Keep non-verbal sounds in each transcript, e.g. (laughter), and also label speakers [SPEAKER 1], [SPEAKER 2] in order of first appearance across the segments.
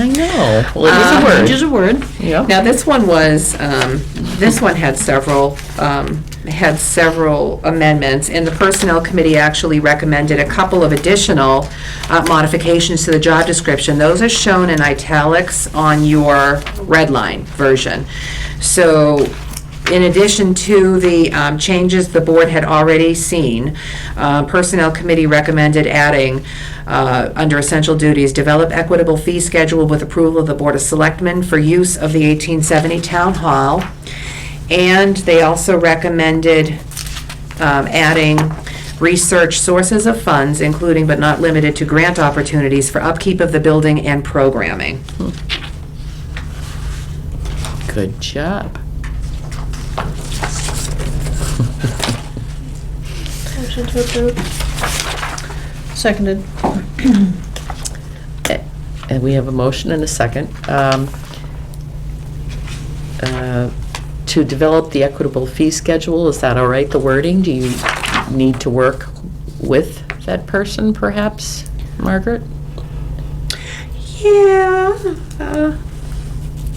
[SPEAKER 1] I know. Well, it
[SPEAKER 2] Which
[SPEAKER 1] is
[SPEAKER 2] is
[SPEAKER 1] a
[SPEAKER 2] Um, a
[SPEAKER 1] word.
[SPEAKER 2] word.
[SPEAKER 1] Yeah.
[SPEAKER 2] Now, this one was, um, this one had several, um, had several amendments, and the Personnel Committee actually recommended a couple of additional uh, modifications to the job description. Those are shown in italics on your red line version. So in addition to the um, changes the board had already seen, uh, Personnel Committee recommended adding, uh, under essential duties, develop equitable fee schedule with approval of the Board of Selectmen for use of the 1870 Town Hall. And they also recommended um, adding research sources of funds, including but not limited to grant opportunities for upkeep of the building and programming.
[SPEAKER 1] Good job.
[SPEAKER 3] Motion to approve.
[SPEAKER 1] (clears throat)
[SPEAKER 3] Seconded.
[SPEAKER 1] A- Eh, And we have a motion and a second um, uh, to develop the equitable fee schedule. Is that all right, the wording? Do you need to work with that person perhaps, Margaret?
[SPEAKER 2] Yeah. uh,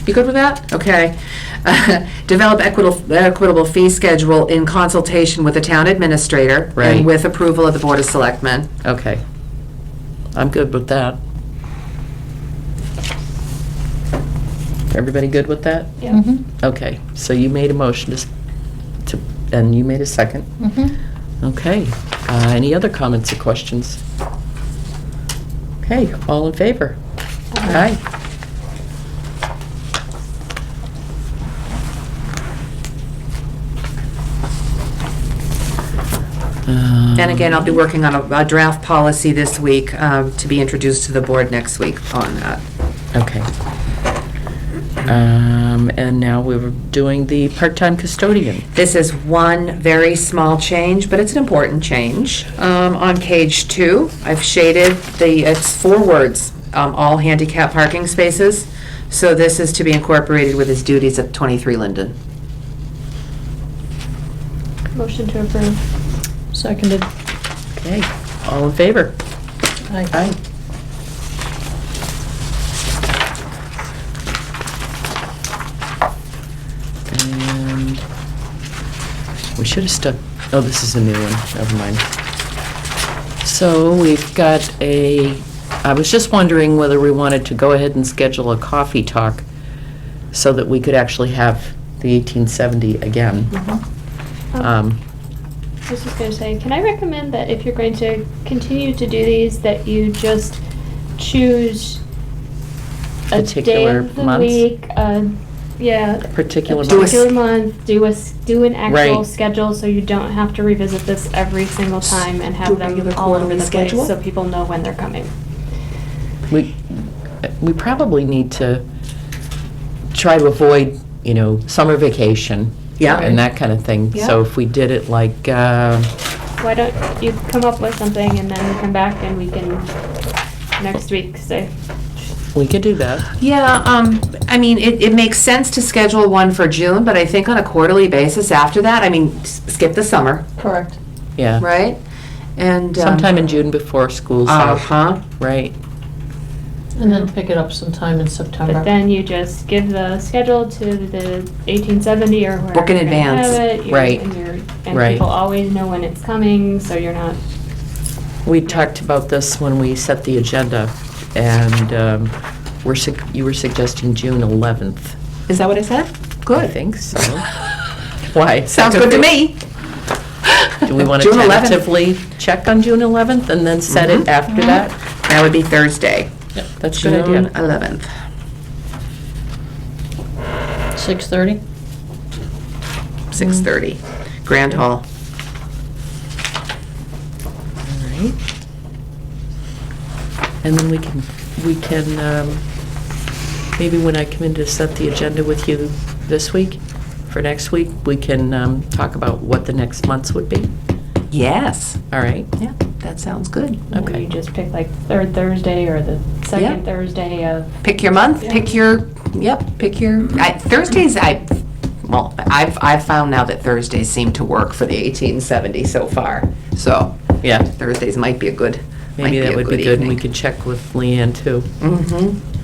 [SPEAKER 2] You good with that? Okay. (laughs) Develop equitable, equitable fee schedule in consultation with the town administrator.
[SPEAKER 1] Right.
[SPEAKER 2] And with approval of the Board of Selectmen.
[SPEAKER 1] Okay. I'm good with that. Everybody good with that?
[SPEAKER 3] Yeah.
[SPEAKER 1] Okay, so you made a motion to s- to, and you made a second. Okay, uh, any other comments or questions? Okay, all in favor? Aye. Um, Mm-hmm.
[SPEAKER 2] And again, I'll be working on a- a draft policy this week um, to be introduced to the board next week on uh, that.
[SPEAKER 1] Okay. Um, And now we're doing the part-time custodian.
[SPEAKER 2] This is one very small change, but it's an important change. Um, On page two, I've shaded the, it's four words, um, all handicap parking spaces. So this is to be incorporated with his duties at 23 Linden.
[SPEAKER 3] Motion to approve. Seconded.
[SPEAKER 1] Okay, all in favor?
[SPEAKER 3] Aye.
[SPEAKER 1] And we should have stuck, oh, this is a new one, never mind. So we've got a, I was just wondering whether we wanted to go ahead and schedule a coffee talk so that we could actually have the 1870 again. Um,
[SPEAKER 3] I was just gonna say, can I recommend that if you're going to continue to do these, that you just choose a day
[SPEAKER 1] Particular
[SPEAKER 3] of the
[SPEAKER 1] months?
[SPEAKER 3] week, uh, yeah, a
[SPEAKER 1] Particular months?
[SPEAKER 3] particular month, do a, s- do an actual
[SPEAKER 1] Right.
[SPEAKER 3] schedule, so you don't have to revisit this every single time and
[SPEAKER 2] do a
[SPEAKER 3] have them
[SPEAKER 2] regular
[SPEAKER 3] all over
[SPEAKER 2] quarterly
[SPEAKER 3] the place,
[SPEAKER 2] schedule?
[SPEAKER 3] so people know when they're coming.
[SPEAKER 1] We, we probably need to try to avoid, you know, summer vacation.
[SPEAKER 2] Yeah.
[SPEAKER 1] And that kind of thing. So
[SPEAKER 3] Yeah.
[SPEAKER 1] if we did it like, uh,
[SPEAKER 3] Why don't you come up with something and then come back and we can, next week, say,
[SPEAKER 1] we could do that.
[SPEAKER 2] Yeah, um, I mean, it, it makes sense to schedule one for June, but I think on a quarterly basis after that, I mean, s- skip the summer,
[SPEAKER 4] Correct.
[SPEAKER 1] Yeah.
[SPEAKER 2] right? And. um,
[SPEAKER 1] Sometime in June before school's out,
[SPEAKER 2] Uh-huh.
[SPEAKER 1] right?
[SPEAKER 4] And then pick it up sometime in September.
[SPEAKER 3] But then you just give the schedule to the eighteen seventy or wherever.
[SPEAKER 2] Book in
[SPEAKER 3] you're gonna have
[SPEAKER 2] advance.
[SPEAKER 3] it, you're-
[SPEAKER 1] Right.
[SPEAKER 3] And you're, and
[SPEAKER 1] Right.
[SPEAKER 3] people always know when it's coming, so you're not,
[SPEAKER 1] We talked about this when we set the agenda, and um, we're, sug- you were suggesting June 11th.
[SPEAKER 2] Is that what I said?
[SPEAKER 1] I
[SPEAKER 2] Good.
[SPEAKER 1] think so. Why? Is that
[SPEAKER 2] (laughs) Sounds good to
[SPEAKER 1] okay?
[SPEAKER 2] me.
[SPEAKER 1] Do we want to
[SPEAKER 2] June 11th.
[SPEAKER 1] tentatively check on June 11th and then set it
[SPEAKER 2] Mhm.
[SPEAKER 1] after that?
[SPEAKER 2] That would be Thursday,
[SPEAKER 1] That's a
[SPEAKER 2] June
[SPEAKER 1] good idea.
[SPEAKER 2] 11th.
[SPEAKER 4] 6:30?
[SPEAKER 2] 6:30, Grand Hall.
[SPEAKER 1] All right. And then we can, we can, um, maybe when I come in to set the agenda with you this week, for next week, we can um, talk about what the next months would be.
[SPEAKER 2] Yes.
[SPEAKER 1] All right?
[SPEAKER 2] Yeah, that sounds good.
[SPEAKER 3] you know,
[SPEAKER 1] Okay.
[SPEAKER 3] you just pick like third Thursday or the
[SPEAKER 2] Yeah.
[SPEAKER 3] second Thursday of,
[SPEAKER 2] Pick your month, pick your, yep, pick your, I- Thursdays, I, well, I've, I've found now that Thursdays seem to work for the 1870 so far. So
[SPEAKER 1] Yeah.
[SPEAKER 2] Thursdays might be a good, might
[SPEAKER 1] Maybe
[SPEAKER 2] be
[SPEAKER 1] that
[SPEAKER 2] a
[SPEAKER 1] would
[SPEAKER 2] good
[SPEAKER 1] be good, and we
[SPEAKER 2] evening.
[SPEAKER 1] could check with Leanne, too.
[SPEAKER 2] Mhm.